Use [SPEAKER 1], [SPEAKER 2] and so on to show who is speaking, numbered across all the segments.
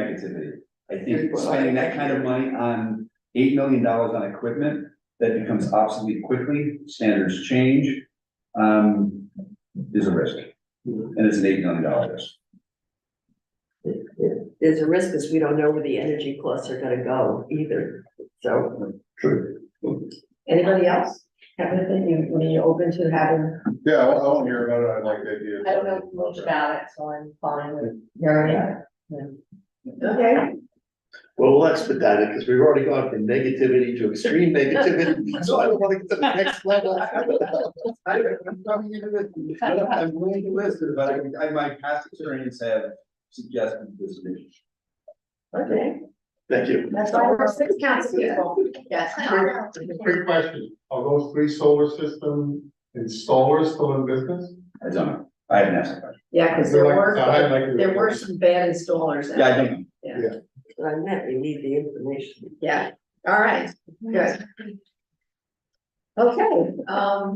[SPEAKER 1] negativity. I think spending that kind of money on eight million dollars on equipment that becomes obsolete quickly, standards change. Um, is a risk. And it's an eight million dollar risk.
[SPEAKER 2] There's a risk because we don't know where the energy costs are gonna go either, so.
[SPEAKER 1] True.
[SPEAKER 2] Anybody else have anything you, when you're open to having?
[SPEAKER 3] Yeah, I won't, I won't hear about it, I like the idea.
[SPEAKER 4] I don't know much about it, so I'm fine with hearing it. Okay.
[SPEAKER 5] Well, we'll expedite it, because we've already gone from negativity to extreme negativity, so I don't wanna get to the next level. I- I'm coming into this, I'm willing to listen,
[SPEAKER 1] But I, I, my past experience have suggested this initiative.
[SPEAKER 2] Okay.
[SPEAKER 5] Thank you.
[SPEAKER 4] That's why we're six council people. Yes.
[SPEAKER 3] Quick question, are those three solar system installers still in business?
[SPEAKER 1] I don't know. I haven't asked that question.
[SPEAKER 4] Yeah, because there were, there were
[SPEAKER 3] worse.
[SPEAKER 4] some bad installers. out
[SPEAKER 1] Yeah, I
[SPEAKER 4] there.
[SPEAKER 1] don't know.
[SPEAKER 2] What I meant, we need the information.
[SPEAKER 4] Yeah, all right, good. Okay, um.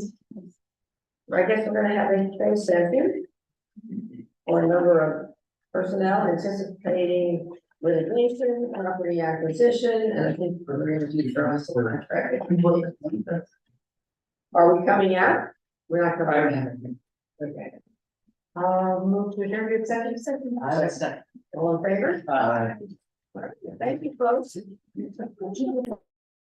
[SPEAKER 4] I guess we're gonna have a trade session. Or a number of personnel anticipating litigation, property acquisition, and I think we're gonna do for us a contract. Are we coming out? We're not coming out. Okay. Um, move to adjourn to executive session. All in favor? Thank you, folks.